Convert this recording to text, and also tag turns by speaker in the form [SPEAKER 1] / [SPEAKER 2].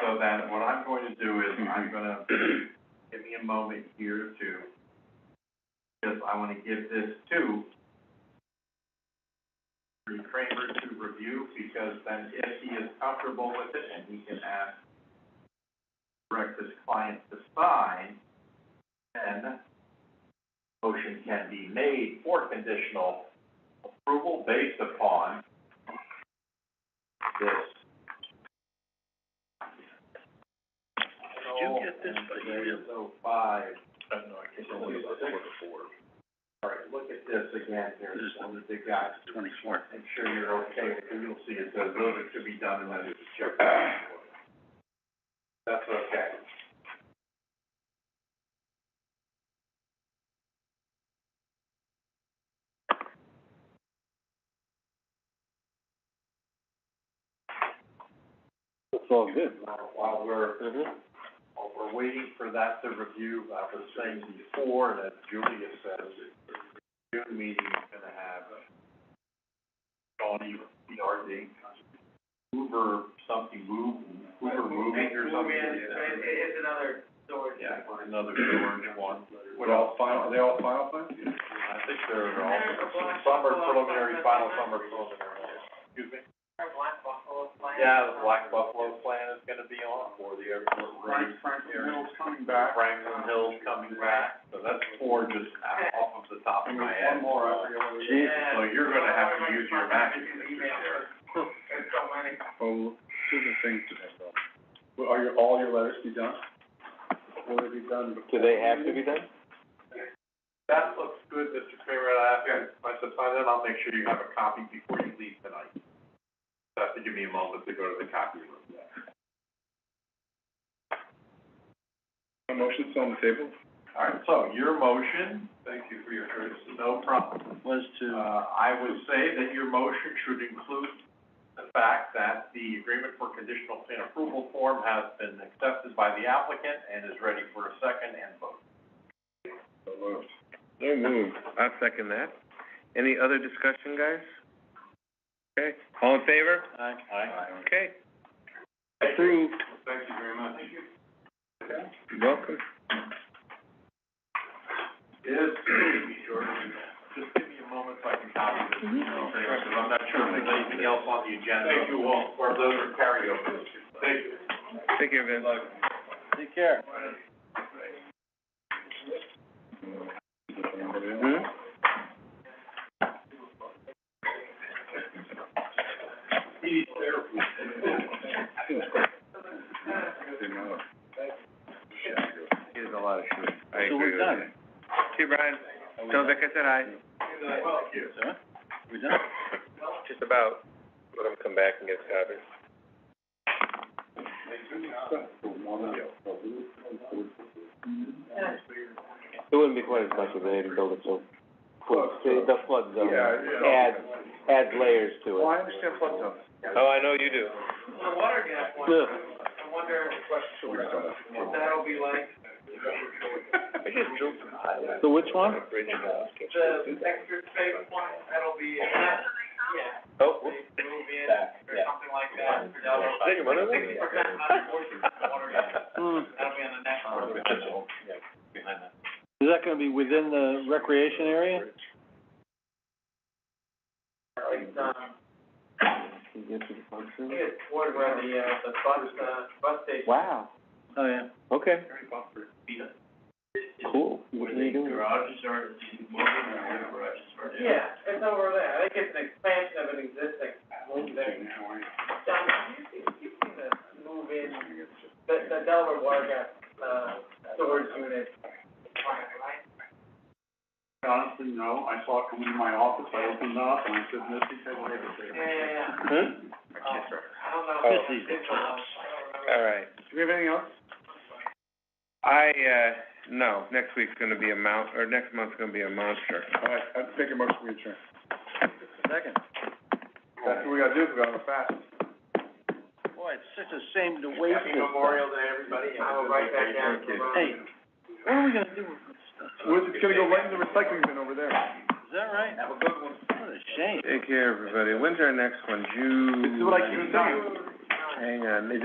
[SPEAKER 1] so then what I'm going to do is, I'm gonna, give me a moment here to, because I wanna give this to Mr. Kramer to review, because then if he is comfortable with it, and he can ask, direct his client to sign, then motion can be made for conditional approval based upon this.
[SPEAKER 2] Did you get this by email?
[SPEAKER 1] So five,
[SPEAKER 2] I have no idea.
[SPEAKER 1] It's only about quarter to
[SPEAKER 2] four.
[SPEAKER 1] all right, look at this again here,
[SPEAKER 2] This is
[SPEAKER 1] one of the big guys.
[SPEAKER 2] Twenty-four.
[SPEAKER 1] Make sure you're okay with it, you'll see it says those are to be done and that is checked. That's okay.
[SPEAKER 2] It's all good. Mm-hmm.
[SPEAKER 1] Now, While we're, while we're waiting for that to review, I was saying before that Julia says the June meeting is gonna have Shawnee, PRD, Hoover, something, move, Hoover moving or something.
[SPEAKER 3] it's another storage.
[SPEAKER 1] Yeah, another George one.
[SPEAKER 2] What all final, are they all final plans?
[SPEAKER 1] I think they're all,
[SPEAKER 3] There's a black
[SPEAKER 1] some are
[SPEAKER 3] buffalo
[SPEAKER 1] preliminary,
[SPEAKER 3] plan,
[SPEAKER 1] final,
[SPEAKER 3] that's
[SPEAKER 1] some are
[SPEAKER 3] not-
[SPEAKER 1] preliminary. Excuse me?
[SPEAKER 3] Our black buffalo plant.
[SPEAKER 1] Yeah, the Black Buffalo plan is gonna be on for the airport route.
[SPEAKER 2] Hill's coming
[SPEAKER 1] Franklin Hill's coming back, so that's four just off of the top of my head.
[SPEAKER 2] Jesus.
[SPEAKER 1] So you're gonna have to use your Mac.
[SPEAKER 3] There's so many.
[SPEAKER 2] Oh, two the things to that, though. Will, are your, all your letters be done? Will they be done before?
[SPEAKER 4] Do they have to be done?
[SPEAKER 1] That looks good, Mr. Kramer, I have, if I supply that, I'll make sure you have a copy before you leave tonight. So have to give me a moment to go to the copy room.
[SPEAKER 2] A motion still on the table?
[SPEAKER 1] All right, so your motion. Thank you for your courtesy. No problem.
[SPEAKER 2] Was
[SPEAKER 1] Uh, I would say that your motion should include the fact that the agreement for conditional plan approval form has been accepted by the applicant and is ready for a second and vote.
[SPEAKER 2] So moved.
[SPEAKER 4] No move. I second that. Any other discussion, guys? Okay, all in favor?
[SPEAKER 2] Aye. Aye.
[SPEAKER 4] Okay,
[SPEAKER 2] Approved.
[SPEAKER 1] Thank you very much. Uh, Thank you.
[SPEAKER 4] welcome.
[SPEAKER 1] Is, just give me a moment so I can copy this, because I'm not sure if there's anything else on the agenda. Thank you all, or those are carryovers. Thank you.
[SPEAKER 4] Take care, Vince.
[SPEAKER 2] Take care.
[SPEAKER 4] Hmm? Hmm?
[SPEAKER 2] Here's a lot of shit.
[SPEAKER 4] I agree with that. See you, Brian. So, like I said, I.
[SPEAKER 2] We done?
[SPEAKER 4] Just about. Let him come back and get a copy. It wouldn't be quite as much if they didn't build it so close. See, the flood zone
[SPEAKER 2] Yeah, yeah.
[SPEAKER 4] adds, adds layers to
[SPEAKER 2] Well,
[SPEAKER 4] it.
[SPEAKER 2] I understand flood zones.
[SPEAKER 4] Oh, I know you do.
[SPEAKER 3] The water gap one,
[SPEAKER 4] Ugh.
[SPEAKER 3] I wonder what that'll be like,
[SPEAKER 4] I just drilled some highway. So which one?
[SPEAKER 3] the extra space one, that'll be, uh, yeah,
[SPEAKER 4] Oh,
[SPEAKER 3] they move in or something like that. for double.
[SPEAKER 4] Is there one of them?
[SPEAKER 3] Sixty percent under forty percent water gap,
[SPEAKER 2] Hmm.
[SPEAKER 3] that'll be on the next one.
[SPEAKER 2] Is that gonna be within the recreation area?
[SPEAKER 3] It's, um, I think it's toward where the, uh, the bus, uh, bus station.
[SPEAKER 4] Wow,
[SPEAKER 2] Oh, yeah.
[SPEAKER 4] okay,
[SPEAKER 1] Very bumper.
[SPEAKER 4] cool. What are you doing?
[SPEAKER 1] garages are, these moving or where the garages are.
[SPEAKER 3] Yeah, it's over there, I think it's an expansion of an existing move there. John, have you seen, you've seen the move in, the, the Delaware Water Gap, uh, storage unit. Right.
[SPEAKER 1] Honestly, no, I saw it come into my office, I opened it up, and I said, Missy, take a look at
[SPEAKER 3] Yeah, yeah, yeah.
[SPEAKER 4] Hmm?
[SPEAKER 3] Um, I don't know.
[SPEAKER 4] Oh.
[SPEAKER 3] I don't remember.
[SPEAKER 4] All right.
[SPEAKER 2] Do we have anything else?
[SPEAKER 4] I, uh, no, next week's gonna be a mount, or next month's gonna be a monster.
[SPEAKER 2] All right, I'd take a motion to adjourn. Second. That's what we gotta do, if we gotta go fast. Boy, it's such a shame to waste
[SPEAKER 1] Happy Memorial Day, everybody.
[SPEAKER 3] I will write that down.
[SPEAKER 2] Hey, what are we gonna do with this stuff? We're just gonna go right in the recycling bin over there. Is that right? Have a good one. What a shame.
[SPEAKER 4] Take care, everybody. When's our next one? June?
[SPEAKER 2] This is what I keep saying.
[SPEAKER 4] Hang on, is it